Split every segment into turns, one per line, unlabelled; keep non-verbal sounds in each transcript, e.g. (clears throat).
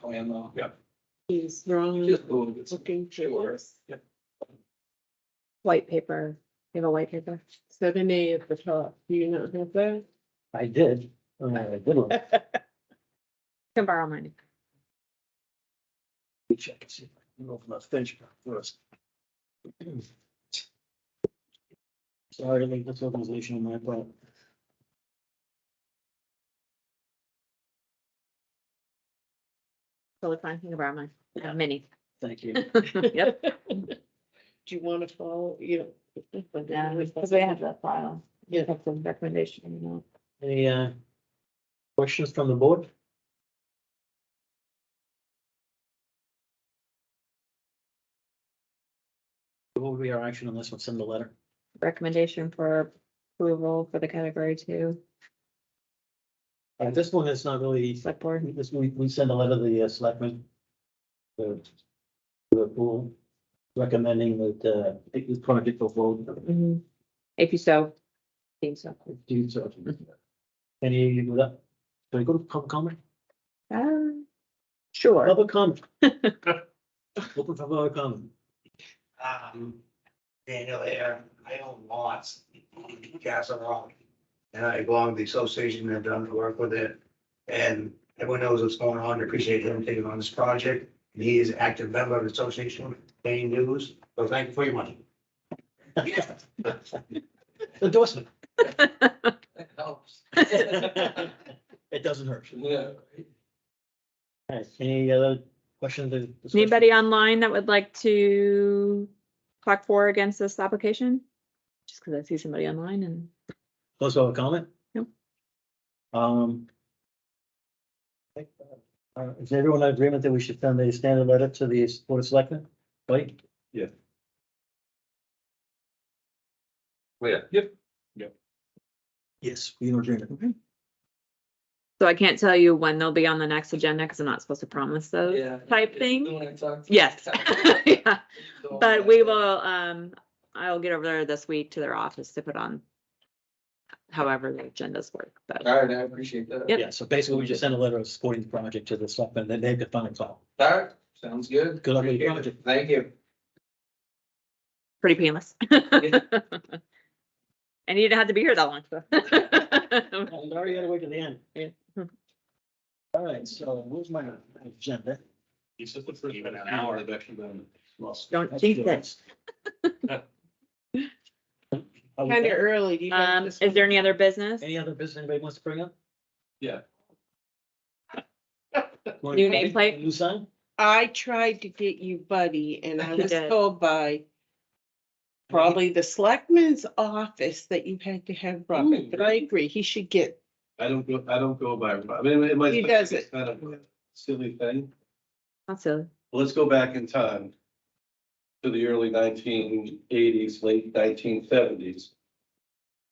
plan though,
uh,
yeah.
He's wrong
Just a little bit.
looking
Sure.
for
Yep.
White paper, you have a white paper?
seven A at the top. Do you not have that?
I did. Uh, I did look.
Can borrow mine.
Let me check and see if I can open up Finch first. (clears throat) Sorry, like this organization on my part.
Totally fine, you can borrow mine. I have
(laughs)
Many.
Thank you.
Yep.
Do you want to follow, you know?
Because we have that file.
Yeah.
Have some recommendation, you know.
Any uh, questions from the board? What would be our action on this one? Send the letter?
recommendation for approval for the category two
Uh, This one is not really,
select board.
this, we, we send a letter to the uh, selectmen. The, the pool recommending that, uh, take this project for vote.
Mm-hmm.
Mhm. If you so, deem so.
Do so. Any, you go up? Can I go to public comment?
Uh, Sure.
Public comment. Open for public comment.
um, Daniel there, I own lots, in Castle Rock. And I belong to the association and I've done work with it. And everyone knows what's going on, I appreciate him taking on this project. And He is an active member of the association, paying dues, so thank you for your money.
(laughs) Endorsement.
That helps.
(laughs) It doesn't hurt.
Yeah.
All right, Any other questions? or discussion?
Anybody online that would like to clock four against this application? Just because I see somebody online and
Close public comment?
Nope.
Um. I think, uh, Is everyone in agreement that we should send a standard letter to the Board of Selectmen? Right?
Yeah, yep.
Yes, we in agreement.
so I can't tell you when they'll be on the next agenda because I'm not supposed to promise those.
Yeah.
Type
It's
thing?
the one I talked to. Oh,
Yes. (laughs) Yeah.
So-
But we will, um, I'll get over there this week to their office to put on however the agendas work, but
All right, I appreciate that.
Yep.
Yeah, so basically we just send a letter of supporting the project to the Selectmen, then they could find it out.
All right, sounds good.
Good luck with your
Appreciate it. Thank you.
pretty painless. (laughs) And you didn't have to be here that long. so. (laughs)
I already had to wait to the end.
Yeah. Hmm.
All right, so where's my agenda?
He's just looking for even an hour. I've actually been.
Don't jinx it.
Kind of early. Do you have
Um,
this
is
one?
there any other business?
Any other business anybody wants to bring up?
Yeah.
New nameplate?
New sign?
I tried to get you Buddy and
(laughs)
I
You
was
did.
told by probably the selectman's office that you had to have Robert, but I agree, he should get,
I don't go, I don't go by, I mean, it might.
He does it.
it's Kind of a silly thing.
Not so.
Let's go back in time. To the early nineteen eighties, late nineteen seventies.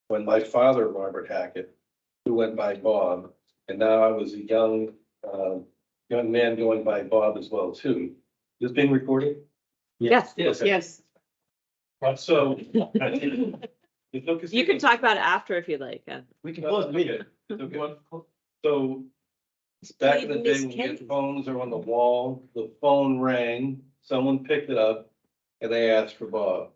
When my father, Robert Hackett, who went by Bob, and now I was a young, uh, young man going by Bob as well too. This being recorded?
Yes,
Yes.
yes.
(laughs)
So. I think- it's okay-
you can talk about it after if you'd like. uh,
We can
Well,
close the meeting.
okay. So, So back in the day when your phones are on the wall, the phone rang, someone picked it up and they asked for Bob.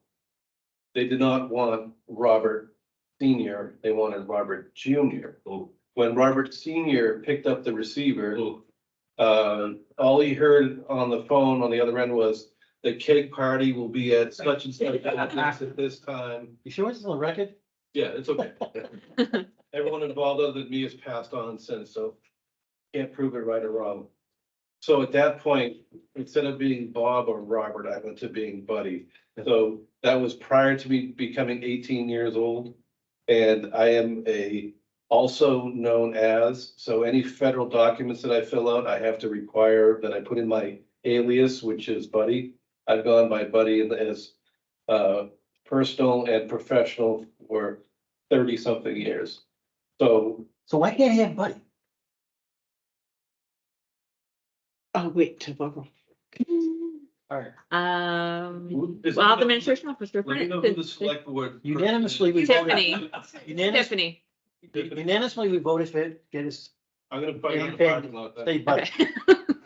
They did not want Robert Senior, they wanted Robert Junior. When Robert Senior picked up the receiver, uh, all he heard on the phone on the other end was the cake party will be at such and such place at this time.
You sure it's on record?
Yeah, it's okay. Everyone involved other than me has passed on since, so can't prove it right or wrong. So at that point, instead of being Bob or Robert, I went to being Buddy. So that was prior to me becoming eighteen years old. And I am a also known as, so any federal documents that I fill out, I have to require that I put in my alias, which is Buddy. I've gone by Buddy as uh personal and professional for thirty something years. So
So why can't he have Buddy?
I'll Oh, wait tomorrow.
All right,
Um,
who- does
well, I'll have the
anyone-
administration officer.
Let me know who the select board.
unanimously we voted.
(laughs)
Tiffany,
Unanimously,
Tiffany.
unanimously we voted for it, get his
I'm gonna find out.
Okay.
about that.
state buddy.
Okay.